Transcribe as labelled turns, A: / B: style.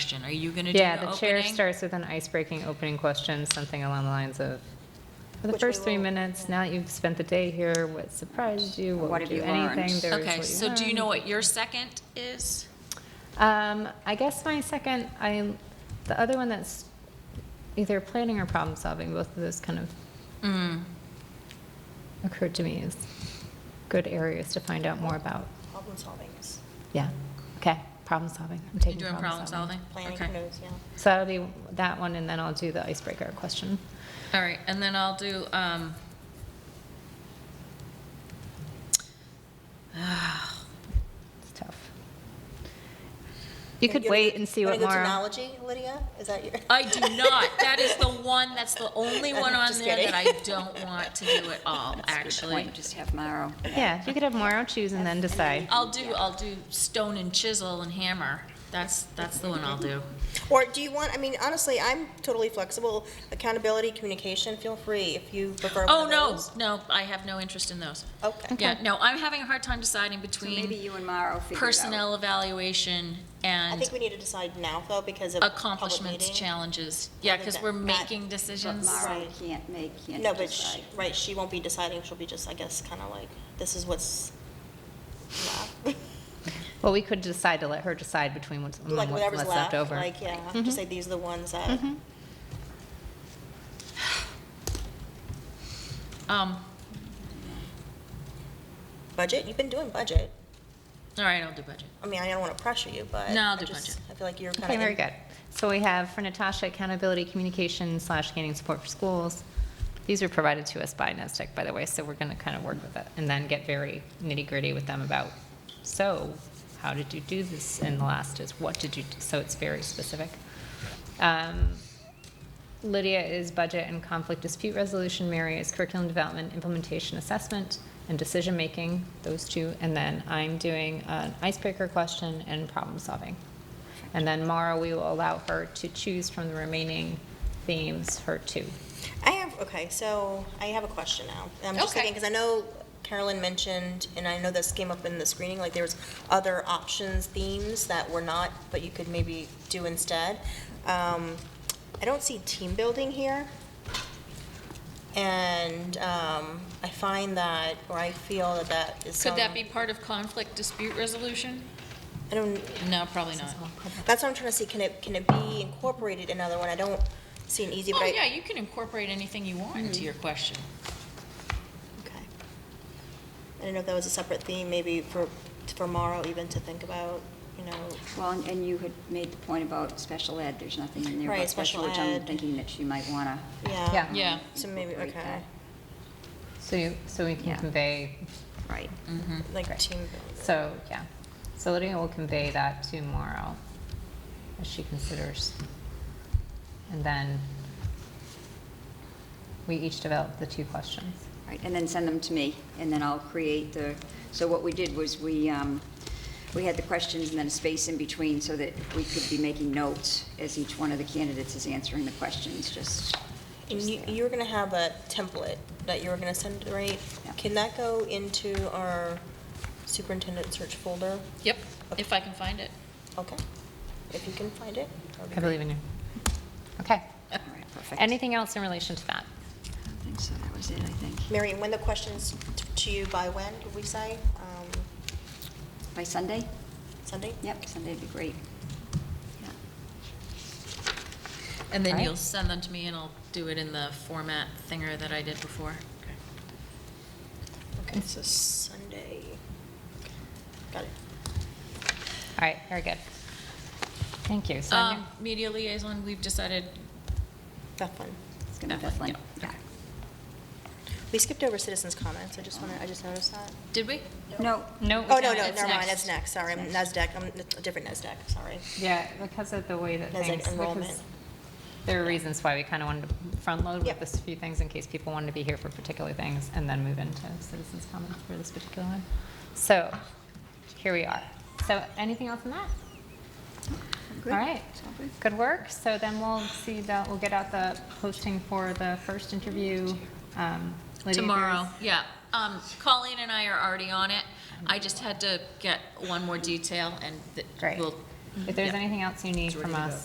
A: question. Are you going to do the
B: Yeah,
A: opening?
B: the chair starts with an ice-breaking opening question, something along the lines of, for the
C: Which we
B: first three
C: will-
B: minutes, now that you've spent the day here, what surprised you?
C: What
B: would
C: have you learned?
B: Anything, there is
A: Okay,
B: what
A: so do you
B: learned.
A: know what your second is?
B: Um, I guess my second, I, the other one that's either planning or problem solving, both of those kind of
A: Mm,
B: occurred to me as good areas to find out more about.
C: Problem solving is,
B: Yeah, okay, problem solving. I'm
A: You're
B: taking
A: doing problem solving?
C: planning
A: Okay.
C: knows, yeah.
B: So that'll be that one, and then I'll do the icebreaker question.
A: All right, and then I'll do, um,
B: It's tough. You
C: Wanna
B: could
C: go to-
B: wait and see
C: wanna
B: what more.
C: go to analogy, Lydia? Is that your?
A: I do not. That is the one, that's the only one on
C: Just
A: there that
C: kidding.
A: I don't want to do at all,
D: Why don't
A: actually.
D: you just have Maro?
B: Yeah, you could have Mauro choose and then decide.
A: I'll do, I'll do stone and chisel and hammer. That's, that's the one I'll do.
C: Or do you want, I mean, honestly, I'm totally flexible. Accountability, communication, feel free if you prefer
A: Oh,
C: one of
A: no,
C: those.
A: no, I have no interest in those.
C: Okay.
A: Yeah, no, I'm having a hard time deciding
D: So maybe
A: between
D: you and Maro figure it out.
A: personnel evaluation
C: I
A: and
C: think we need to decide now though because of public
A: accomplishments,
C: meeting.
A: challenges. Yeah,
C: Other
A: because
C: than
A: we're
C: that-
A: making
D: But
A: decisions.
D: Maro
C: Right.
D: can't make, can't
C: No, but
D: decide.
C: she, right, she won't be deciding. She'll be just, I guess, kind of like, this is what's, left.
B: Well, we could decide to let her decide between what's, among
C: like
B: what's
C: whatever's
B: left
C: left.
B: over. Mm-hmm.
C: Like, yeah,
A: Mm-hmm.
C: just say these are the ones that.
A: Um,
C: Budget. You've been doing budget.
A: all right, I'll do budget.
C: I mean, I don't want to pressure you, but
A: No, I'll
C: I
A: do
C: just-
A: budget.
C: I feel like you're kind of.
B: Okay, very good. So we have for Natasha, accountability, communication slash gaining support for schools. These were provided to us by NESDEC, by the way, so we're going to kind of work with it and then get very nitty gritty with them about, so how did you do this? And the last is, what did you, do? so it's very specific. Um, Lydia is budget and conflict dispute resolution, Mary is curriculum development, implementation assessment, and decision-making, those two. And then I'm doing an icebreaker question and problem solving. And then Mara, we will allow her to choose from the remaining themes, her two.
C: I have, okay, so I have a question now. I'm just
A: Okay.
C: thinking, because I know Carolyn mentioned, and I know this came up in the screening, like there was other options, themes that were not, but you could maybe do instead. Um, I don't see team building here. And um, I find that, or I feel that that is
A: Could that
C: some-
A: be part of conflict dispute resolution?
C: I don't,
A: No, probably not.
C: that's what I'm trying to see, can it, can it be incorporated in another one? I don't see an easy, but
A: Oh,
C: I.
A: yeah, you can incorporate anything you want into your question.
C: Okay. I don't know if that was a separate theme, maybe for, for Morrow even to think about, you know,
D: Well, and- and you had made the point about special ed, there's nothing in there
C: Right,
D: about special
C: special
D: ed. I'm
C: ed.
D: thinking that she might want to.
C: yeah.
B: Yeah.
A: Yeah.
C: So maybe,
D: Incorporate
C: okay,
B: So you, so we can
D: Yeah.
B: convey,
D: Right.
C: like team building.
B: so, yeah. So Lydia will convey that to Mara as she considers. And then we each develop the two questions.
D: Right, and then send them to me, and then I'll create the, so what we did was we, um, we had the questions and then a space in between so that we could be making notes as each one of the candidates is answering the questions, just,
C: And you, you were gonna have a template that you were gonna send, right?
D: Yeah.
C: Can that go into our superintendent search folder?
A: Yep, if I can find it.
C: Okay, if you can find it. that'd be
B: I believe in you. Okay.
D: all right, perfect.
B: Anything else in relation to that?
D: I think so, that was it, I think.
C: great. Mary, and when the questions t- to you by when, did we say? Um,
D: By Sunday?
C: Sunday?
D: Yep, Sunday'd be great. Yeah.
A: And then
B: Right.
A: you'll send them to me and I'll do it in the format thinger that I did before.
C: Okay, so Sunday. Got it.
B: All right, very good. Thank you. So I'm
A: Um, media liaison, we've decided,
C: That one.
D: It's gonna be
A: That one,
D: definitely,
A: yeah.
D: yeah.
C: We skipped over citizens' comments, I just want to, I just noticed that.
A: did we?
D: No,
B: No.
C: Oh, no, no,
A: it's
C: never mind,
A: next.
C: that's next, sorry, I'm NASDAQ, I'm a different NASDAQ, sorry.
B: Yeah, because of the way that
C: As an
B: things, because
C: enrollment.
B: there are reasons why we kind of wanted to front load with
C: Yep.
B: this few things in case people wanted to be here for particular things and then move into citizens' comments for this particular one. So here we are. So anything else on that?
D: good.
B: All right.
D: It's all good.
B: Good work. So then we'll see that, we'll get out the posting for the first interview. um, Lydia,
A: Tomorrow, yeah.
B: there's-
A: Um, Colleen and I are already on it. I just had to get one more detail and th-
B: Great.
A: we'll.
B: If there's
A: yeah.
B: anything else you need from us,